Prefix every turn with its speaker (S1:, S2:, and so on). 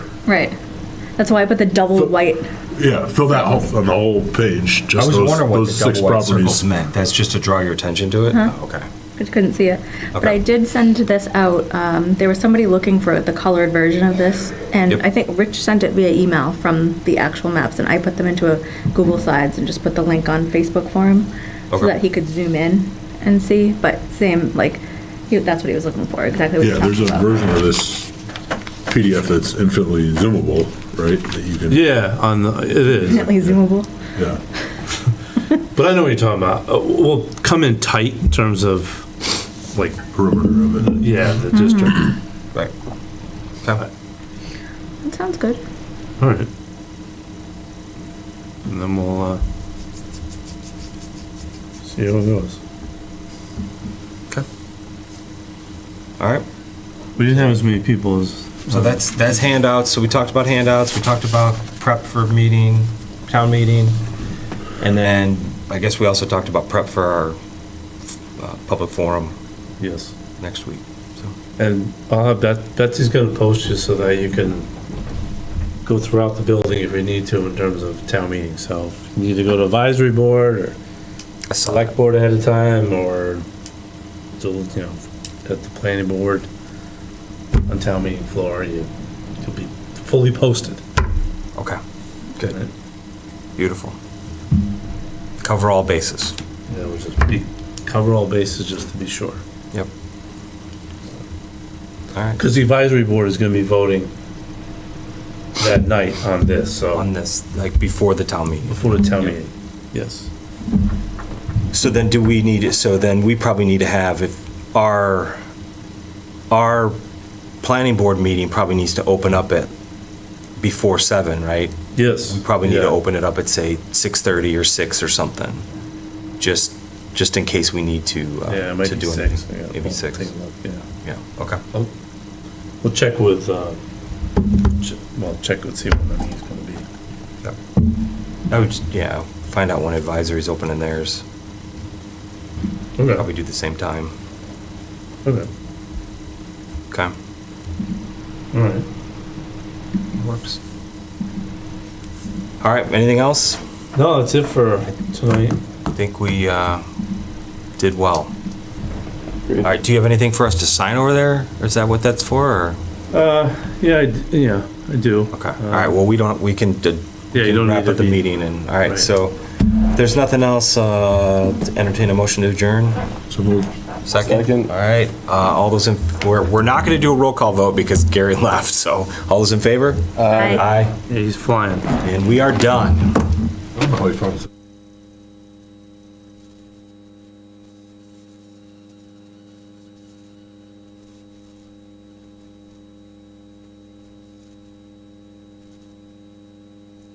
S1: Right. That's why I put the double white.
S2: Yeah, fill that whole, on the whole page,
S3: I
S2: just
S3: was
S2: those,
S3: wondering what
S2: those
S3: the
S2: six
S3: double white
S2: properties.
S3: circles meant. That's just to draw your attention to it? Oh, Okay.
S1: I couldn't see it. But
S3: Okay.
S1: I did send this out. Um, there was somebody looking for the colored version of this, and
S3: Yep.
S1: I think Rich sent it via email from the actual maps, and I put them into a Google Slides and just put the link on Facebook for him so
S3: Okay.
S1: that he could zoom in and see. But same, like, he, that's what he was looking for, exactly what
S2: Yeah,
S1: he was
S2: there's a
S1: talking about.
S2: version of this PDF that's infinitely zoomable, right? That you can,
S4: Yeah, on the, it is.
S1: Definitely zoomable.
S2: yeah.
S4: But I know what you're talking about. Uh, We'll come in tight in terms of, like,
S2: perimeter of it.
S4: yeah, the district.
S3: Right. Okay.
S1: That sounds good.
S4: All right. And then we'll, uh, see how it goes.
S3: Okay. All right.
S4: We didn't have as many people as.
S3: So that's, that's handouts. So we talked about handouts, we talked about prep for meeting, town meeting. And then I guess we also talked about prep for our uh, public forum
S4: Yes.
S3: next week. So
S4: And I'll have that, Betsy's gonna post you so that you can go throughout the building if you need to in terms of town meeting. So if you need to go to advisory board or
S3: I saw that.
S4: select board ahead of time or to, you know, at the planning board on town meeting floor, you, you'll be fully posted.
S3: Okay. Good. Beautiful. Cover all bases.
S4: You know, just be, cover all bases just to be sure.
S3: Yep. All right.
S4: Because the advisory board is gonna be voting that night on this, so,
S3: On this, like before the town meeting.
S4: before the town meeting. Yes.
S3: So then do we need, it? so then we probably need to have, if our, our planning board meeting probably needs to open up at before seven, right?
S4: Yes.
S3: We probably need to
S4: Yeah.
S3: open it up at, say, 6:30 or six or something, just, just in case we need to. uh,
S4: Yeah, it might
S3: to
S4: be
S3: do
S4: six.
S3: anything.
S4: yeah.
S3: Maybe
S4: We'll
S3: six.
S4: take a look, Yeah.
S3: Yeah, okay.
S4: We'll check with, uh, ch- well, check with, see when the meeting's gonna be.
S3: I would, just- yeah, find out when advisory's opening theirs. Probably
S4: Okay,
S3: do the same time.
S4: okay,
S3: Okay,
S4: all right.
S3: works. All right, anything else?
S4: No, that's it for tonight.
S3: I think we uh, did well. All right, do you have anything for us to sign over there? Or is that what that's for? Or?
S4: Uh, yeah, I, d- yeah, I do.
S3: Okay, all right, well, we don't, we can d-
S4: Yeah, you don't
S3: wrap
S4: need to
S3: up the
S4: be-
S3: meeting and, all right,
S4: Right.
S3: so if there's nothing else, uh, to entertain a motion to adjourn?
S2: So moved.
S3: Second?
S5: Second.
S3: All right, uh, all those in, we're, we're not going to do a roll call vote because Gary left, so all those in favor?
S1: Aye.
S3: Aye,
S4: Yeah, he's flying.
S3: and we are done.
S2: Probably found-